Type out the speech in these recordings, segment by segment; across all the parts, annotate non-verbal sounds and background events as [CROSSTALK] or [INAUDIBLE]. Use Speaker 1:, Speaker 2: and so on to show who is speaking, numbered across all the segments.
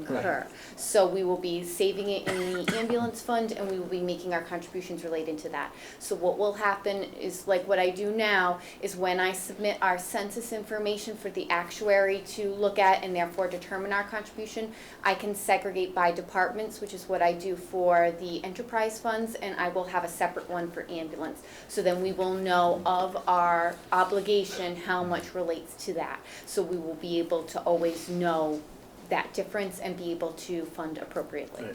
Speaker 1: incur. So we will be saving it in the ambulance fund and we will be making our contributions related to that. So what will happen is like what I do now is when I submit our census information for the actuary to look at and therefore determine our contribution, I can segregate by departments, which is what I do for the enterprise funds, and I will have a separate one for ambulance. So then we will know of our obligation, how much relates to that. So we will be able to always know that difference and be able to fund appropriately.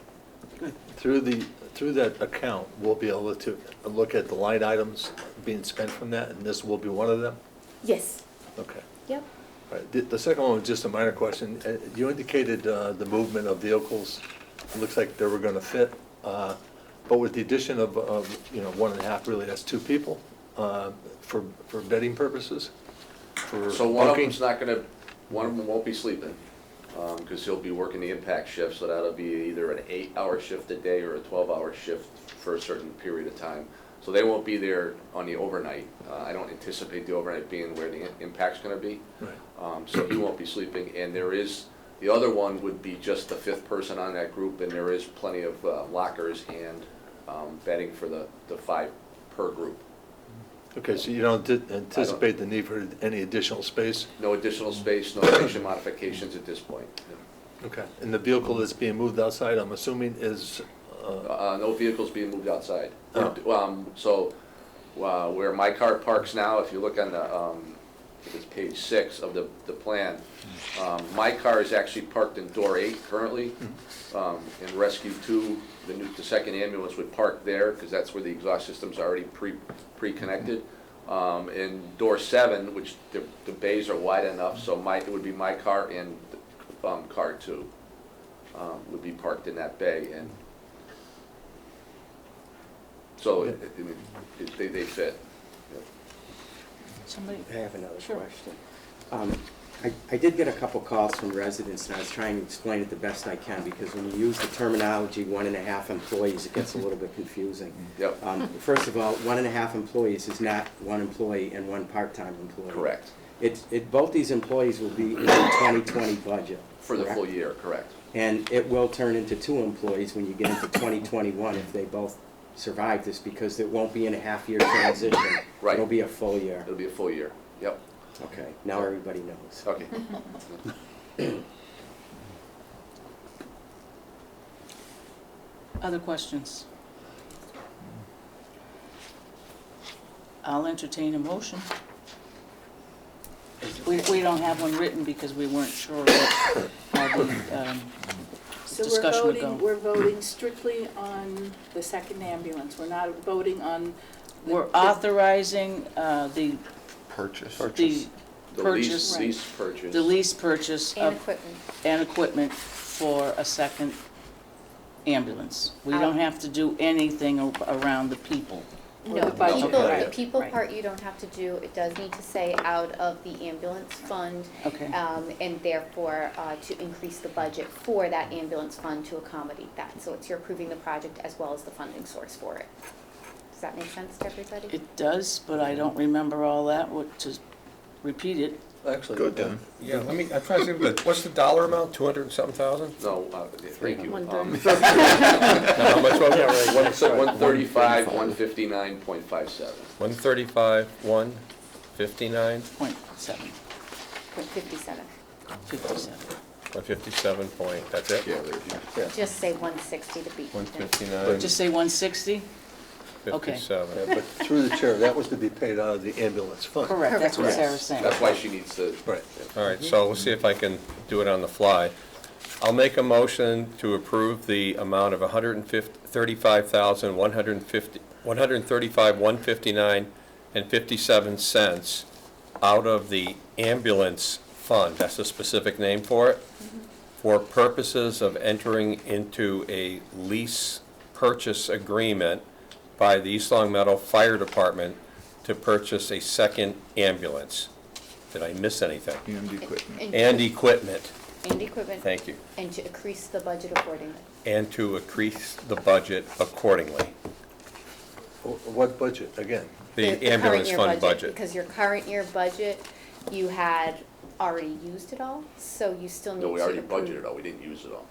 Speaker 2: Right. Through the, through that account, we'll be able to look at the line items being spent from that, and this will be one of them?
Speaker 1: Yes,
Speaker 2: Okay.
Speaker 1: yep,
Speaker 2: All right. The, the second one was just a minor question. Uh, You indicated uh, the movement of vehicles, It looks like they were gonna fit, uh, but with the addition of, of, you know, one and a half, really, that's two people, uh, for, for bedding purposes, for
Speaker 3: So one of
Speaker 2: bunking.
Speaker 3: them's not gonna, one of them won't be sleeping, um, cause he'll be working the impact shift, so that'll be either an eight-hour shift a day or a twelve-hour shift for a certain period of time. So they won't be there on the overnight, uh, I don't anticipate the overnight being where the i- impact's gonna be.
Speaker 2: Right.
Speaker 3: Um, so he won't be sleeping, and there is, the other one would be just the fifth person on that group, and there is plenty of uh, lockers and, um, bedding for the, the five per group.
Speaker 2: Okay, so you don't di- anticipate the need for any additional space?
Speaker 3: No additional space, no [COUGHS] station modifications at this point.
Speaker 2: Okay. And the vehicle that's being moved outside, I'm assuming, is, uh,
Speaker 3: Uh, no vehicles being moved outside.
Speaker 2: Oh.
Speaker 3: Um, so, uh, where my car parks now, if you look on the, um, I think it's page six of the, the plan, um, my car is actually parked in door eight currently. Um, in rescue two, the new, the second ambulance would park there, cause that's where the exhaust system's already pre, pre-connected. Um, and door seven, which the, the bays are wide enough, so my, it would be my car and, um, car two, um, would be parked in that bay and so, it- it- I mean, it- they, they fit.
Speaker 4: Somebody,
Speaker 5: I have another
Speaker 4: Sure.
Speaker 5: question. Um, I I did get a couple calls from residents, and I was trying to explain it the best I can, because when you use the terminology, one and a half employees, it gets a little bit confusing.
Speaker 3: [LAUGHS] Yep.
Speaker 5: Um, First of all, one and a half employees is not one employee and one part-time employee.
Speaker 3: Correct.
Speaker 5: It's, it, both these employees will be in the 2020 budget.
Speaker 3: For the full
Speaker 5: correct?
Speaker 3: year, correct.
Speaker 5: And it will turn into two employees when you get into 2021 if they both survive this, because it won't be in a half-year transition.
Speaker 3: Right.
Speaker 5: It'll be a full year.
Speaker 3: It'll be a full year. Yep,
Speaker 5: Okay, now everybody knows.
Speaker 4: [LAUGHS]
Speaker 3: okay.
Speaker 4: other questions? I'll entertain a motion. We, we don't have one written because we weren't sure what, how the, um,
Speaker 6: So we're
Speaker 4: discussion would
Speaker 6: voting,
Speaker 4: go.
Speaker 6: we're voting strictly on the second ambulance, we're not voting on. the-
Speaker 4: we're authorizing, uh, the,
Speaker 7: Purchase.
Speaker 4: the
Speaker 3: The lease,
Speaker 4: purchase,
Speaker 6: Right.
Speaker 3: lease purchase.
Speaker 4: the lease purchase
Speaker 1: and
Speaker 4: of,
Speaker 1: equipment.
Speaker 4: and equipment for a second ambulance. We
Speaker 1: Out.
Speaker 4: don't have to do anything a- around the people.
Speaker 6: Or
Speaker 1: No,
Speaker 6: the
Speaker 1: the
Speaker 6: budget,
Speaker 1: people, the
Speaker 6: right,
Speaker 1: people
Speaker 6: right.
Speaker 1: part you don't have to do, it does need to say out of the ambulance fund.
Speaker 4: Okay.
Speaker 1: Um, and therefore, uh, to increase the budget for that ambulance fund to accommodate that. So it's you're approving the project as well as the funding source for it. Does that make sense to everybody?
Speaker 4: It does, but I don't remember all that, what, to repeat it.
Speaker 2: actually.
Speaker 7: Good then.
Speaker 8: Yeah, let me, I'm trying to think, of the- what's the dollar amount, two hundred and something thousand?
Speaker 3: No, uh, thank you. Um,
Speaker 8: How much was it?
Speaker 3: One, [LAUGHS] so one thirty-five, one fifty-nine point five seven.
Speaker 8: One thirty-five, one fifty-nine,
Speaker 4: Point seven,
Speaker 1: [LAUGHS] Point fifty-seven.
Speaker 4: fifty-seven.
Speaker 8: one fifty-seven point, that's it?
Speaker 1: Just say one sixty to be.
Speaker 8: One fifty-nine,
Speaker 4: Just say one sixty? okay.
Speaker 8: fifty-seven.
Speaker 2: But through the chair, that was to be paid out of the ambulance fund.
Speaker 4: Correct, that's what
Speaker 1: Correct.
Speaker 4: Sarah's saying.
Speaker 3: That's why she needs to.
Speaker 2: Right.
Speaker 8: All right, so we'll see if I can do it on the fly. I'll make a motion to approve the amount of one hundred and fifty, thirty-five thousand, one hundred and fifty, one hundred and thirty-five, one fifty-nine and fifty-seven cents out of the ambulance fund, that's a specific name for it, for purposes of entering into a lease purchase agreement by the East Long Meadow Fire Department to purchase a second ambulance. Did I miss anything?
Speaker 7: And equipment.
Speaker 8: And equipment,
Speaker 1: And equipment.
Speaker 8: thank you.
Speaker 1: And to increase the budget accordingly.
Speaker 8: And to increase the budget accordingly.
Speaker 2: Wh- What budget, again?
Speaker 8: The
Speaker 1: current
Speaker 8: ambulance
Speaker 1: year
Speaker 8: fund budget.
Speaker 1: Because your current year budget, you had already used it all, so you still need to.
Speaker 3: No, we already
Speaker 1: approve-
Speaker 3: budgeted all, we didn't use it all.